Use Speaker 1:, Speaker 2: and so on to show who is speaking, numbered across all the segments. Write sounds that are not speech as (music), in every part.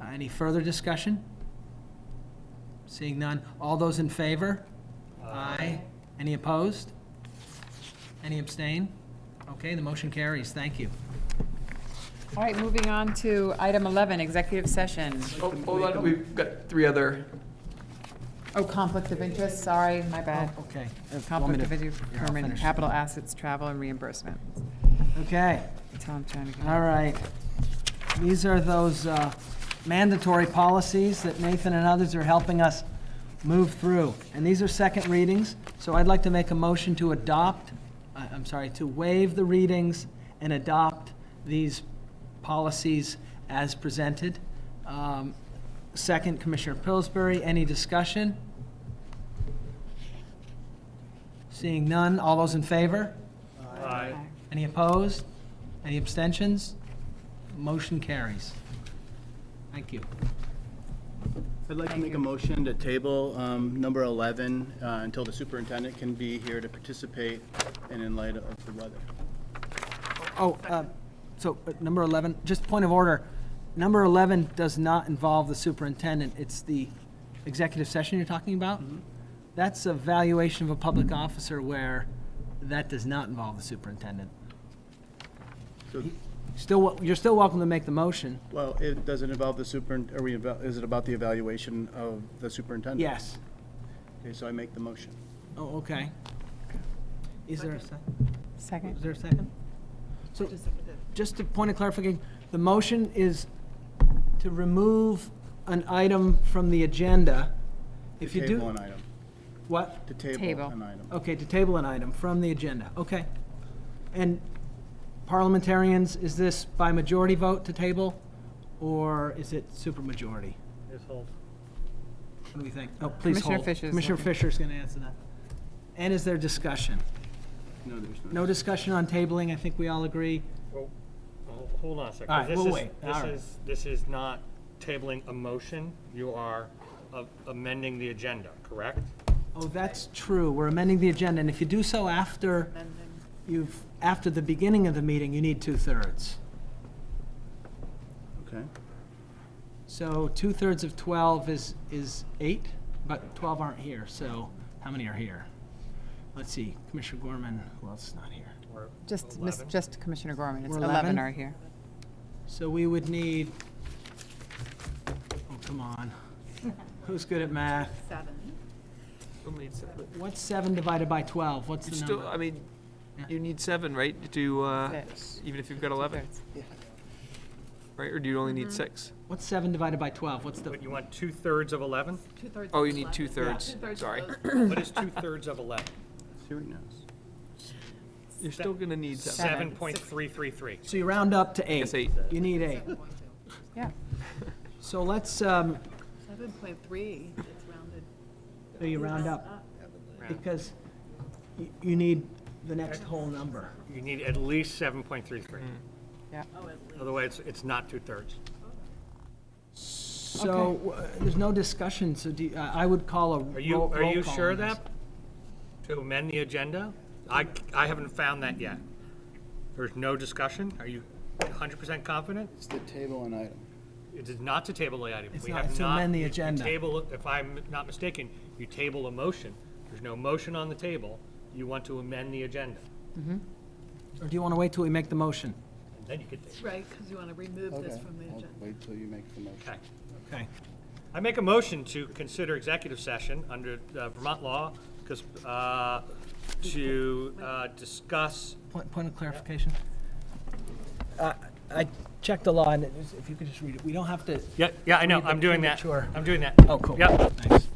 Speaker 1: Uh, Any further discussion? Seeing none. All those in favor? Aye. Any opposed? Any abstain? Okay, the motion carries. Thank you.
Speaker 2: All right, moving on to item 11, executive session.
Speaker 3: Oh, Hold on, we've got three other,
Speaker 2: Oh, conflict of interest, sorry, my bad.
Speaker 1: Oh, Okay. Want me
Speaker 2: uh, Conflict
Speaker 1: to-
Speaker 2: of interest,
Speaker 1: Yeah, I'll
Speaker 2: procurement,
Speaker 1: finish.
Speaker 2: capital assets, travel, and reimbursement.
Speaker 1: Okay.
Speaker 2: That's how I'm trying to
Speaker 1: All
Speaker 2: get.
Speaker 1: right. These are those uh, mandatory policies that Nathan and others are helping us move through. And these are second readings, so I'd like to make a motion to adopt, I- I'm sorry, to waive the readings and adopt these policies as presented. Um, Second, Commissioner Pillsbury, any discussion? Seeing none, all those in favor?
Speaker 2: Aye.
Speaker 1: Any opposed? Any abstentions? Motion carries. Thank you.
Speaker 4: I'd like to make a motion to table um, number 11 uh, until the superintendent can be here to participate and in light of the weather.
Speaker 1: Oh, uh, so uh, number 11, just point of order, number 11 does not involve the superintendent. It's the executive session you're talking about? That's a valuation of a public officer where that does not involve the superintendent.
Speaker 4: So,
Speaker 1: Still, wel- you're still welcome to make the motion.
Speaker 4: Well, it doesn't involve the superin, are we, eva- is it about the evaluation of the superintendent?
Speaker 1: Yes.
Speaker 4: Okay, so I make the motion.
Speaker 1: Oh, okay. Is there a second? Is
Speaker 2: Second?
Speaker 1: there a second? So, just a point of clarification, the motion is to remove an item from the agenda. If you
Speaker 4: To Table
Speaker 1: do, Oh.
Speaker 4: an item.
Speaker 1: what?
Speaker 4: To table
Speaker 2: Table.
Speaker 4: an item.
Speaker 1: Okay, to table an item from the agenda, okay. And parliamentarians, is this by majority vote to table? Or is it supermajority? What do we think? Oh, please
Speaker 2: Commissioner
Speaker 1: hold.
Speaker 2: Fisher's
Speaker 1: Commissioner
Speaker 2: looking.
Speaker 1: Fisher's gonna answer that. And is there discussion?
Speaker 4: No, there's no.
Speaker 1: No discussion on tabling, I think we all agree.
Speaker 5: Well, ho- Hold on a second.
Speaker 1: All right,
Speaker 5: 'cause this
Speaker 1: we'll
Speaker 5: is-
Speaker 1: wait.
Speaker 5: This
Speaker 1: All right.
Speaker 5: is, this is not tabling a motion. You are a- amending the agenda, correct?
Speaker 1: Oh, that's true. We're amending the agenda, and if you do so after you've, after the beginning of the meeting, you need two-thirds.
Speaker 4: Okay.
Speaker 1: So two-thirds of 12 is, is eight, but 12 aren't here, so how many are here? Let's see, Commissioner Gorman, who else is not here?
Speaker 5: Or
Speaker 2: Just, miss-
Speaker 5: 11?
Speaker 2: just Commissioner Gorman, it's
Speaker 1: We're
Speaker 2: 11
Speaker 1: 11?
Speaker 2: are here.
Speaker 1: So we would need, oh, come on. Who's good at math?
Speaker 6: You'll need seven.
Speaker 1: What's seven divided by 12? What's
Speaker 6: You
Speaker 1: the
Speaker 6: still, uh, I
Speaker 1: number?
Speaker 6: mean,
Speaker 1: Yeah.
Speaker 6: you need seven, right, to, uh,
Speaker 2: Six.
Speaker 6: even if you've got 11,
Speaker 2: Two-thirds.
Speaker 6: right, or do you only need six?
Speaker 1: What's seven divided by 12? What's the,
Speaker 5: But you want two-thirds of 11?
Speaker 6: Oh, you need two-thirds, sorry.
Speaker 5: What is two-thirds of 11?
Speaker 4: See what he knows.
Speaker 6: (laughs) You're still gonna need seven.
Speaker 2: Seven.
Speaker 5: 7.333.
Speaker 1: so you round up to eight.
Speaker 6: Yes, eight.
Speaker 1: You need eight.
Speaker 2: Yeah,
Speaker 1: So let's, um,
Speaker 7: Seven point three, it's rounded.
Speaker 1: So you round up, because y- you need the next whole number.
Speaker 5: You need at least 7.33.
Speaker 2: yeah.
Speaker 5: Otherwise, it's not two-thirds.
Speaker 1: So, w- there's no discussion, so do, you- I I would call a ro-
Speaker 5: Are
Speaker 1: roll
Speaker 5: you,
Speaker 1: call.
Speaker 5: are you
Speaker 1: on
Speaker 5: sure of
Speaker 1: this.
Speaker 5: that? To amend the agenda? I, I haven't found that yet. There's no discussion? Are you 100% confident?
Speaker 4: It's to table an item.
Speaker 5: It is not to table the item.
Speaker 1: It's
Speaker 5: We
Speaker 1: not,
Speaker 5: have
Speaker 1: it's to amend the
Speaker 5: you- you
Speaker 1: agenda.
Speaker 5: Table, if I'm not mistaken, you table a motion. There's no motion on the table. You want to amend the agenda.
Speaker 1: Or do you want to wait till we make the motion?
Speaker 5: And then you could table.
Speaker 7: Right, because you want to remove this from the agenda.
Speaker 4: wait till you make the motion.
Speaker 5: Okay.
Speaker 1: Okay.
Speaker 5: I make a motion to consider executive session under uh, Vermont law because, uh, to, uh, discuss,
Speaker 1: Point, point of clarification? Uh, I checked the law, and it was- if you could just read it, we don't have to,
Speaker 5: yeah, yeah, I know,
Speaker 1: Read the
Speaker 5: I'm doing that.
Speaker 1: premature.
Speaker 5: I'm doing that.
Speaker 1: oh, cool.
Speaker 5: Yep.
Speaker 1: Thanks.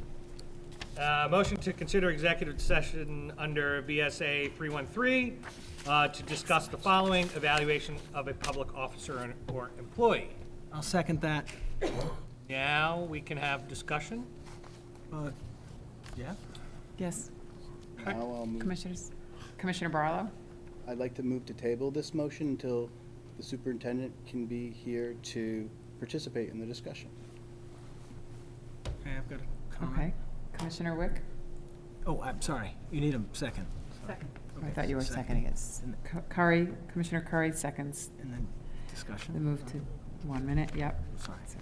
Speaker 5: Uh, Motion to consider executive session under BSA 313 uh, to discuss the following: evaluation of a public officer and- or employee.
Speaker 1: I'll second that.
Speaker 5: Now, we can have discussion.
Speaker 1: Uh, Yeah?
Speaker 2: Yes,
Speaker 4: Now I'll move,
Speaker 2: commissioners? Commissioner Barlow?
Speaker 4: I'd like to move to table this motion until the superintendent can be here to participate in the discussion.
Speaker 1: Okay, I've got a
Speaker 2: Okay.
Speaker 1: comment.
Speaker 2: Commissioner Wick?
Speaker 1: Oh, I'm sorry, you need a second.
Speaker 7: Second.
Speaker 2: I
Speaker 1: Okay,
Speaker 2: thought you were
Speaker 1: second.
Speaker 2: seconding it. C- Curry, Commissioner Curry seconds
Speaker 1: And then
Speaker 2: the
Speaker 1: discussion,
Speaker 2: move to one minute, yep.
Speaker 1: sorry.
Speaker 2: So